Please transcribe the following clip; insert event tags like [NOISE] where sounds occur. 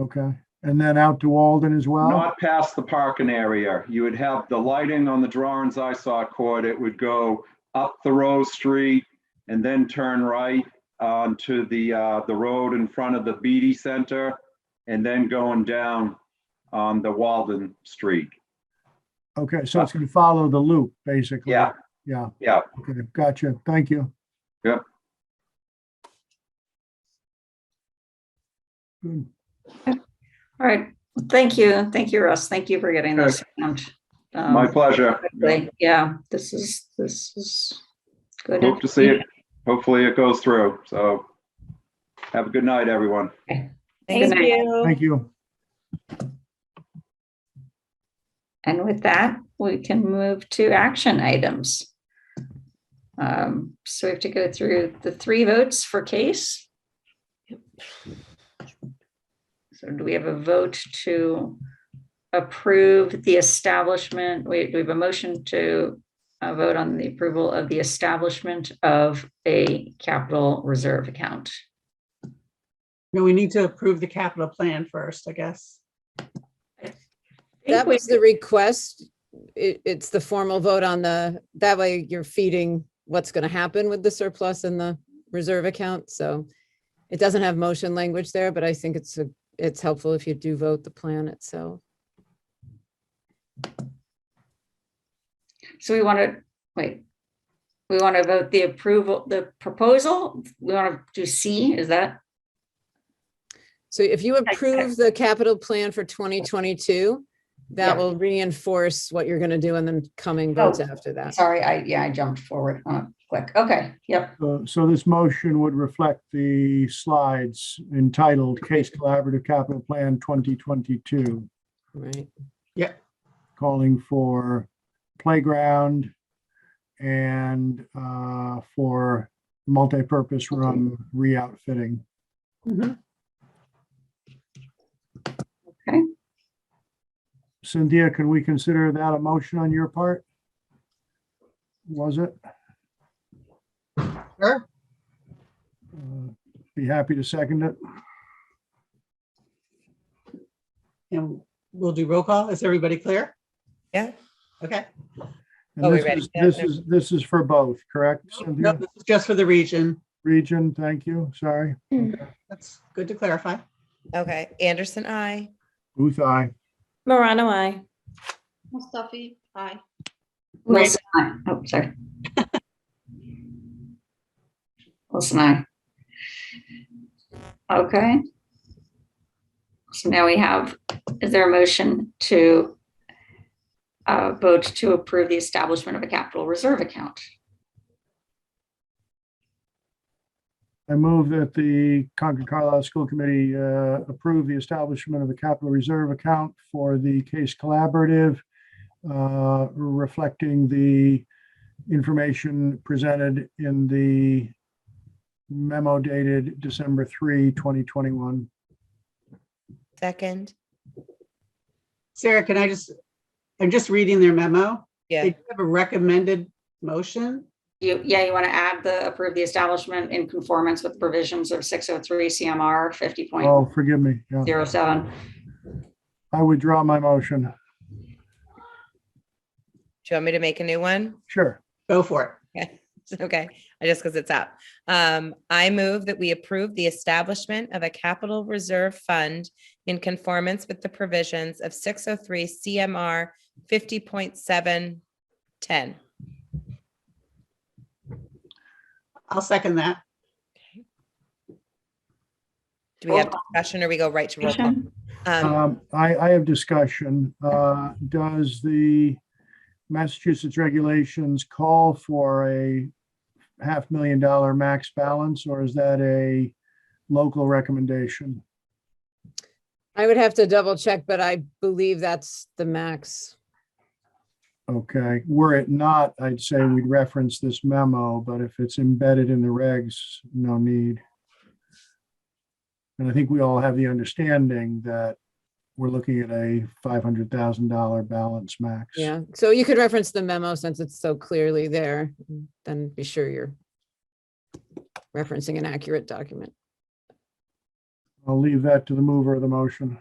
Okay, and then out to Alden as well? Not past the parking area. You would have the lighting on the drawings I saw, Court. It would go up the Rose Street and then turn right onto the, uh, the road in front of the Beatty Center and then going down on the Walden Street. Okay, so it's gonna follow the loop, basically. Yeah, Yeah, yeah. okay, gotcha. Thank you. Yeah. Good. All right, thank you, thank you, Russ, thank you for getting this. out, um, My pleasure. quickly. Yeah, this is, this is good. Hope to see it. Hopefully it goes through. So have a good night, everyone. Good Thank night. you. Thank you. And with that, we can move to action items. Um, So we have to go through the three votes for case. So do we have a vote to approve the establishment? We we have a motion to uh, vote on the approval of the establishment of a capital reserve account. No, we need to approve the capital plan first, I guess. That was the request. It, it's the formal vote on the, that way you're feeding what's going to happen with the surplus and the reserve account. So it doesn't have motion language there, but I think it's, a it's helpful if you do vote the plan itself. So we want to, wait. We want to vote the approval, the proposal. We want to do C, is that? So if you approve the capital plan for 2022, Yeah. that will reinforce what you're going to do in the coming votes Oh, after that. Sorry, I, yeah, I jumped forward on a click. Okay, yep, Uh, So this motion would reflect the slides entitled Case Collaborative Capital Plan 2022, Right. calling for playground and uh, for multipurpose room re-outfitting. Mm-hmm. Okay. Cynthia, can we consider that a motion on your part? Was it? Sure. Uh, Be happy to second it. And we'll do roll call. Is everybody clear? Yeah. Okay. And Oh, we this ready? is- Yeah, This no. is, this is for both, correct? No, Cynthia? this is just for the region. Region, thank you, sorry. That's good to clarify. Okay, Anderson, I. Booth, aye. Morano, I. Mustafi, aye. Wilson, aye. Oh, sorry. Wilson, aye. Okay. So now we have, is there a motion to uh, vote to approve the establishment of a capital reserve account? I move that the Concord Carlisle School Committee uh, approve the establishment of a capital reserve account for the case collaborative, uh, reflecting the information presented in the memo dated December 3, 2021. Second. Sarah, can I just, I'm just reading their memo. Yeah. They do have a recommended motion. You, yeah, you want to add the approve the establishment in conformance with provisions of 603 CMR fifty point Oh, forgive me. Yeah, zero seven. I withdraw my motion. Do you want me to make a new one? [LAUGHS] Sure. Go for it. Okay, I just because it's up. Um, I move that we approve the establishment of a capital reserve fund in conformance with the provisions of six oh three CMR fifty point seven ten. I'll second that. Do we have discussion or we go right to roll call? Um, Um, I, I have discussion. Uh, Does the Massachusetts regulations call for a half million dollar max balance, or is that a local recommendation? I would have to double check, but I believe that's the max. Okay, were it not, I'd say we'd reference this memo, but if it's embedded in the regs, no need. And I think we all have the understanding that we're looking at a five hundred thousand dollar balance max. Yeah. So you could reference the memo since it's so clearly there, then be sure you're referencing an accurate document. I'll leave that to the mover of the motion.